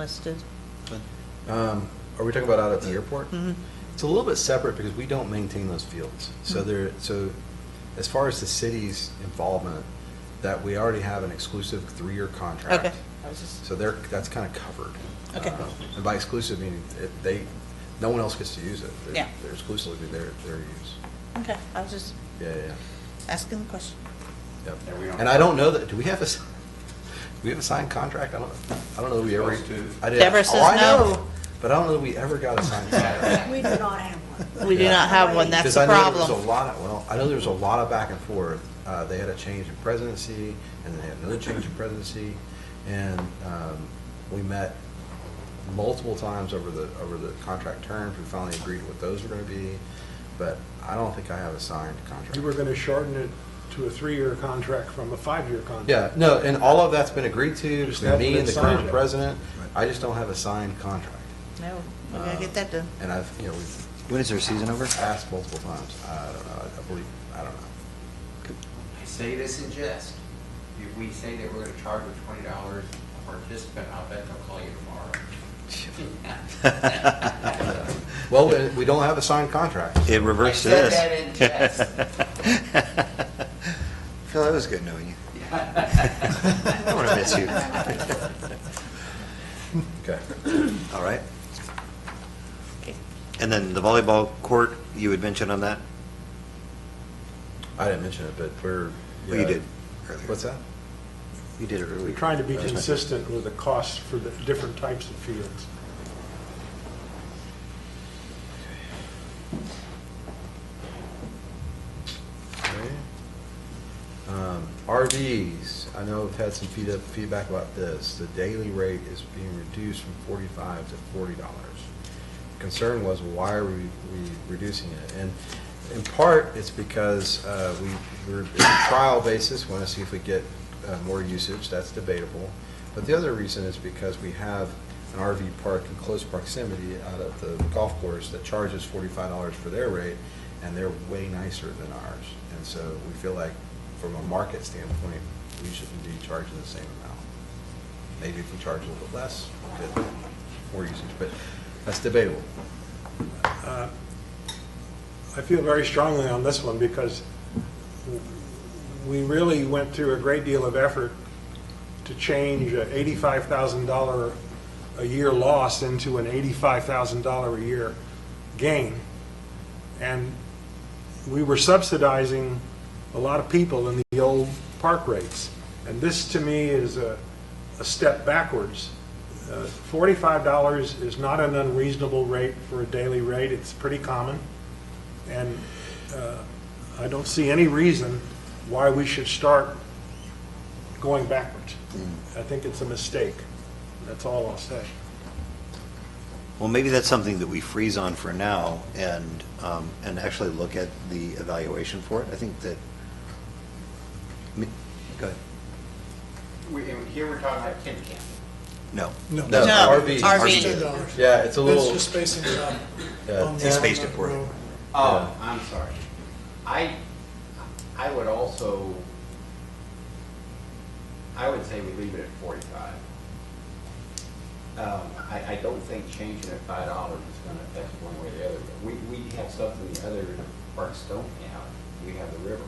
listed. Um, Are we talking about out at the airport? Mm-hmm. It's a little bit separate because we don't maintain those fields. So Mm-hmm. there, so as far as the city's involvement, that we already have an exclusive three-year contract. Okay. I was just- So they're, that's kind of covered. Okay. Uh, And by exclusive, meaning it- they, no one else gets to use it. They're- Yeah. They're exclusively their, their use. Okay, I was just Yeah, yeah, asking the question. yeah. There we Yep. are. And I don't know that, do we have a, s- do we have a signed contract? I don't, I don't know that we ever. Supposed to. I did- Deborah oh, says I no. know, But I don't know that we ever got a signed contract. We do not have one. We do not have one, that's Because the I know there was problem. a lot, of- well, I know there was a lot of back and forth. Uh, They had a change in presidency, and then they had another change in presidency, and um, we met multiple times over the, over the contract terms. We finally agreed what those were going to be, but I don't think I have a signed contract. You were going to shorten it to a three-year contract from a five-year contract. Yeah, no, and all of that's been agreed to, between hasn't me been and the current signed. president. I just don't have a signed contract. No, we gotta get that done. And I've, you know, we've When is their season over? asked multiple times. I don't know, I- I believe, I don't know. I say this in jest. If we say that we're gonna charge a twenty dollars a participant, I'll bet they'll call you tomorrow. Well, we- we don't have a signed contract. It reversed I said this. that in Phil, it was good knowing you. I want to miss you. Okay. All right. Okay. And then the volleyball court, you had mentioned on that? I didn't mention it, but we're. Well, you did earlier. What's that? You did it We're earlier. trying to be Just- consistent with the costs for the different types of fields. Um, RVs, I know I've had some feed- feedback about this. The daily rate is being reduced from forty-five to forty dollars. Concern was, why are we, we reducing it? And in part, it's because, uh, we, we're, it's a trial basis, wanna see if we get, uh, more usage, that's debatable. But the other reason is because we have an RV park in close proximity out at the golf course that charges forty-five dollars for their rate, and they're way nicer than ours. And so we feel like, from a market standpoint, we shouldn't be charging the same amount. Maybe if we charge a little bit less, we'll get more usage, but that's debatable. Uh, I feel very strongly on this one because we really went through a great deal of effort to change a $85,000 a year loss into an $85,000 a year gain. And we were subsidizing a lot of people in the old park rates. And this, to me, is a, a step backwards. Uh, $45 is not an unreasonable rate for a daily rate, it's pretty common. And uh, I don't see any reason why we should start going backwards. I think it's a mistake. That's all I'll say. Well, maybe that's something that we freeze on for now and, um, and actually look at the evaluation for it. I think that, I mean, go ahead. We, and here we're talking about kid camp. No. No. No, No, RV. RV. $2. Yeah, it's a That's little, just spacing it out. Yeah. on the He spaced it Allen for you. Road. Yeah. Oh, I'm sorry. I, I would also, I would say we leave it at forty-five. Um, I, I don't think changing it five dollars is gonna affect one way or the other. We, we have something the other parks don't have. We have the river.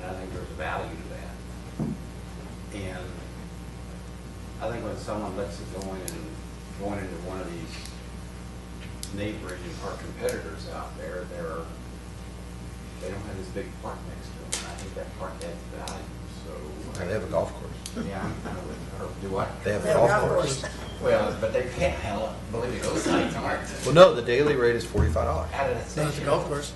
And I think there's value to that. And I think when someone lets it go in and going into one of these neighboring or competitors out there, they're, they don't have this big park next to them. And I think that park adds value, so. Yeah, they have a golf course. Yeah, I'm kind of with, or do I? They have a They have golf golf course. Well, but they can't, hell, believe me, those sites aren't. Well, no, the daily rate is forty-five dollars. Out of the It's not the station. golf course.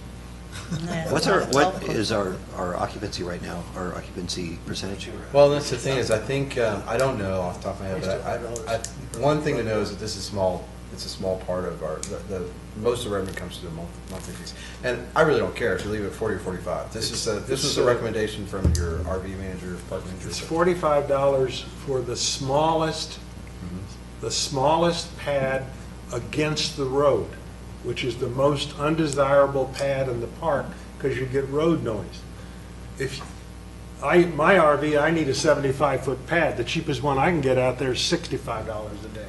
Yeah. What's our, what is our, our occupancy right now, our occupancy percentage? Well, that's the thing is, I think, um, I don't know off the top of my head, but I, I, one thing to know is that this is small, it's a small part of our, the, the, most of the revenue comes through the mon- monthly fees. And I really don't care if you leave it at forty or forty-five. This is a, this was a recommendation from your RV manager, park manager. It's forty-five dollars for the smallest, the smallest pad against the road, which is the most undesirable pad in the park, because you get road noise. If, I, my RV, I need a seventy-five foot pad, the cheapest one I can get out there is sixty-five dollars a day.